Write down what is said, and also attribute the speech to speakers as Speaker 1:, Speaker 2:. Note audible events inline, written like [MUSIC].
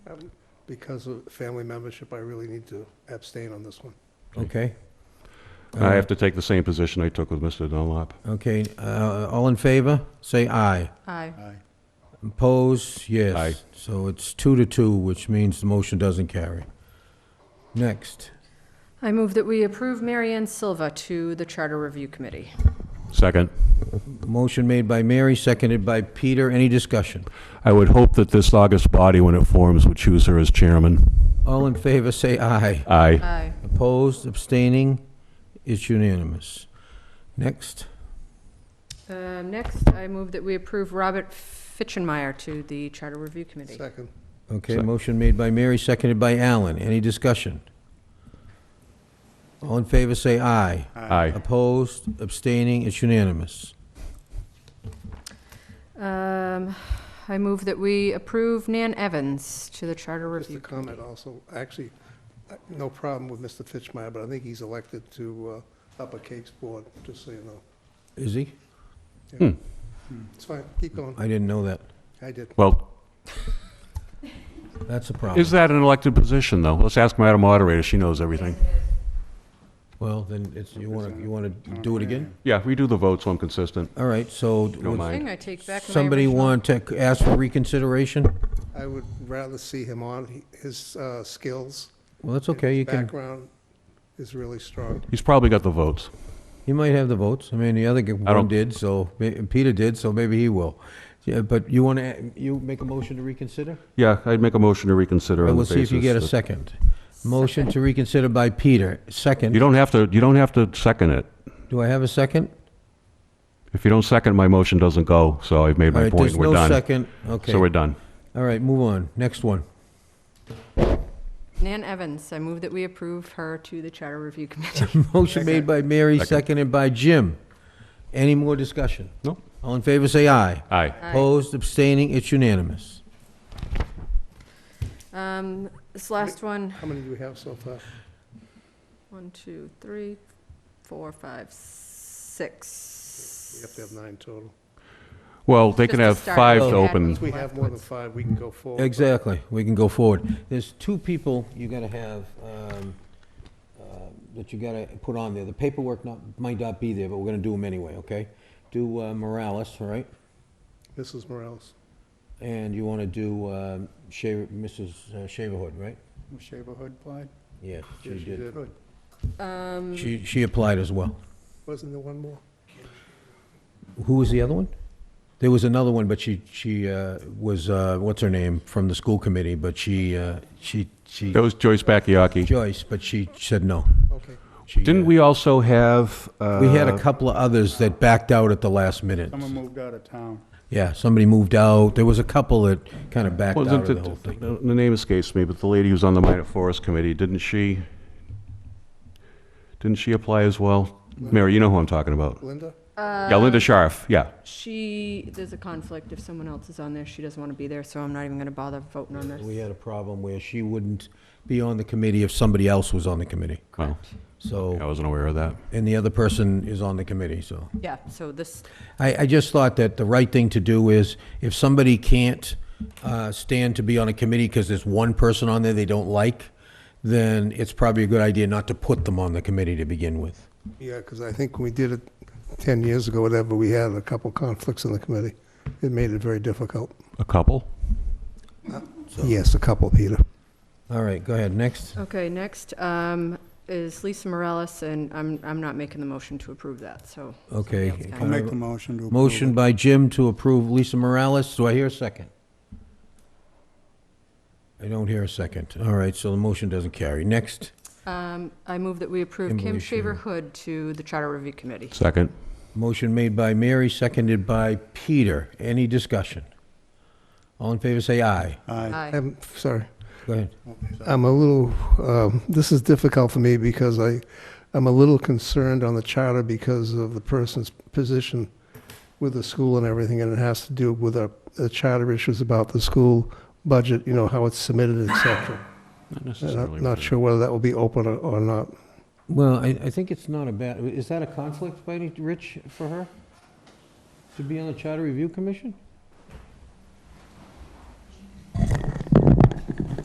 Speaker 1: Um, Because of family membership, I really need to abstain on this one.
Speaker 2: Okay?
Speaker 3: I have to take the same position I took with Mr. Dunlop.
Speaker 2: Okay, uh, all in favor, say aye.
Speaker 4: Aye.
Speaker 2: Opposed, yes.
Speaker 3: Aye.
Speaker 2: So it's two to two, which means the motion doesn't carry. Next.
Speaker 4: I move that we approve Marianne Silva to the Charter Review Committee.
Speaker 3: Second.
Speaker 2: Motion made by Mary, seconded by Peter. Any discussion?
Speaker 3: I would hope that this August body, when it forms, would choose her as chairman.
Speaker 2: All in favor, say aye.
Speaker 3: Aye.
Speaker 4: Aye.
Speaker 2: Opposed, abstaining, it's unanimous. Next.
Speaker 4: Uh, Next, I move that we approve Robert Fitchenmeyer to the Charter Review Committee.
Speaker 1: Second,
Speaker 2: Okay,
Speaker 3: Sec-
Speaker 2: motion made by Mary, seconded by Alan. Any discussion? All in favor, say aye.
Speaker 3: Aye.
Speaker 2: Opposed, abstaining, it's unanimous.
Speaker 4: Um, I move that we approve Nan Evans to the Charter
Speaker 1: just
Speaker 4: Review.
Speaker 1: a comment also, actually, I- no problem with Mr. Fitchmeyer, but I think he's elected to uh, Upper Cape's Board, just so you know.
Speaker 2: Is he? Hmm.
Speaker 1: It's fine, keep going.
Speaker 2: I didn't know that.
Speaker 1: I did.
Speaker 3: Well,
Speaker 2: That's a problem.
Speaker 3: is that an elected position, though? Let's ask Madam Moderator, she knows everything.
Speaker 2: Well, then it's, you want to, you want to do it again?
Speaker 3: Yeah, we do the vote, so I'm consistent.
Speaker 2: All right, so would
Speaker 3: mind.
Speaker 4: Thing, I take back my
Speaker 2: somebody
Speaker 4: original-
Speaker 2: want to ask for reconsideration?
Speaker 1: I would rather see him on. He- His uh, skills,
Speaker 2: Well, that's okay, you can,
Speaker 1: background is really strong.
Speaker 3: He's probably got the votes.
Speaker 2: he might have the votes. I mean, the other g-
Speaker 3: I don't-
Speaker 2: one did, so, ma- Peter did, so maybe he will. Yeah, But you want to, you make a motion to reconsider?
Speaker 3: Yeah, I'd make a motion to reconsider
Speaker 2: Well,
Speaker 3: on the
Speaker 2: we'll
Speaker 3: basis.
Speaker 2: see if you get a
Speaker 3: that-
Speaker 2: second. Motion to reconsider by Peter,
Speaker 3: You
Speaker 2: second.
Speaker 3: don't have to, you don't have to second it.
Speaker 2: Do I have a second?
Speaker 3: If you don't second, my motion doesn't go, so I've made
Speaker 2: All
Speaker 3: my
Speaker 2: right,
Speaker 3: point,
Speaker 2: there's
Speaker 3: and we're
Speaker 2: no
Speaker 3: done.
Speaker 2: second, okay.
Speaker 3: So we're done.
Speaker 2: All right, move on, next one.
Speaker 4: Nan Evans, I move that we approve her to the Charter Review Committee.
Speaker 1: [LAUGHS]
Speaker 2: Motion made by Mary,
Speaker 3: Second.
Speaker 2: seconded by Jim. Any more discussion?
Speaker 3: No.
Speaker 2: All in favor, say aye.
Speaker 3: Aye.
Speaker 4: Aye.
Speaker 2: Opposed, abstaining, it's unanimous.
Speaker 4: Um, This last one,
Speaker 1: How many do we have so far?
Speaker 4: one, two, three, four, five, six.
Speaker 1: We have to have nine total.
Speaker 3: Well, they
Speaker 4: Just
Speaker 3: can
Speaker 4: to
Speaker 3: have
Speaker 4: start
Speaker 3: five
Speaker 4: with
Speaker 3: to
Speaker 4: the
Speaker 3: open.
Speaker 4: admin.
Speaker 1: If we have more than five, we can go forward.
Speaker 2: Exactly, we can go forward. There's two people you gotta have, um, uh, that you gotta put on there. The paperwork not, might not be there, but we're gonna do them anyway, okay? Do uh, Morales, all right?
Speaker 1: Mrs. Morales.
Speaker 2: And you wanna do um, Shaver, Mrs. uh, Shaverhood, right?
Speaker 1: Shaverhood applied? Yes,
Speaker 2: Yes, she
Speaker 1: she
Speaker 2: did.
Speaker 1: did.
Speaker 4: Um,
Speaker 2: She, she applied as well.
Speaker 1: Wasn't there one more?
Speaker 2: Who was the other one? There was another one, but she, she uh, was, uh, what's her name, from the school committee, but she, uh, she, she,
Speaker 3: That was Joyce Bakayaki.
Speaker 2: Joyce, but she said no.
Speaker 1: Okay.
Speaker 2: She,
Speaker 3: Didn't
Speaker 2: uh,
Speaker 3: we also have?
Speaker 2: We had a
Speaker 3: uh,
Speaker 2: couple of others that backed out at the last minute.
Speaker 5: Someone moved out of town.
Speaker 2: Yeah, somebody moved out. There was a couple that kind of backed out
Speaker 3: Wasn't
Speaker 2: of the
Speaker 3: it,
Speaker 2: whole thing.
Speaker 3: the the name escapes me, but the lady who's on the Minor Forest Committee, didn't she, didn't she apply as well? Mary, you know who I'm talking about.
Speaker 1: Linda?
Speaker 2: uh,
Speaker 3: Yeah, Linda Sharf, yeah.
Speaker 4: She, there's a conflict. If someone else is on there, she doesn't want to be there, so I'm not even going to bother voting on
Speaker 2: We uh,
Speaker 4: this.
Speaker 2: had a problem where she wouldn't be on the committee if somebody else was on the committee.
Speaker 3: Well, I
Speaker 2: So,
Speaker 3: wasn't aware of that.
Speaker 2: and the other person is on the committee, so.
Speaker 4: Yeah, so this,
Speaker 2: I, I just thought that the right thing to do is, if somebody can't uh, stand to be on a committee because there's one person on there they don't like, then it's probably a good idea not to put them on the committee to begin with.
Speaker 1: Yeah, because I think when we did it 10 years ago, whatever, we had a couple conflicts in the committee. It made it very difficult.
Speaker 3: A couple?
Speaker 2: Oh.
Speaker 1: Yes, a couple, Peter.
Speaker 2: All right, go ahead, next.
Speaker 4: okay, next um, is Lisa Morales, and I'm, I'm not making the motion to approve that, so. somebody
Speaker 2: Okay.
Speaker 4: else can.
Speaker 2: Can
Speaker 5: I'll
Speaker 2: I
Speaker 5: make
Speaker 2: have a
Speaker 5: the motion to approve.
Speaker 2: Motion by Jim to approve Lisa Morales. Do I hear a second? I don't hear a second. All right, so the motion doesn't carry. Next.
Speaker 4: Um, I move that we approve Kim
Speaker 2: Kimberly
Speaker 4: Shaver
Speaker 2: Shaver.
Speaker 4: Hood to the Charter Review Committee.
Speaker 3: Second.
Speaker 2: Motion made by Mary, seconded by Peter. Any discussion? All in favor, say aye.
Speaker 5: Aye.
Speaker 4: Aye.
Speaker 1: I'm sorry.
Speaker 2: Go ahead.
Speaker 1: I'm a little, um, this is difficult for me because I, I'm a little concerned on the charter because of the person's position with the school and everything, and it has to do with our, the charter issues about the school budget, you know, how it's submitted, et cetera.
Speaker 3: Not
Speaker 1: And
Speaker 3: necessarily.
Speaker 1: I'm not sure whether that will be open or- or not.
Speaker 2: Well, I, I think it's not a bad, is that a conflict by any, Rich, for her? To be on the Charter Review Commission?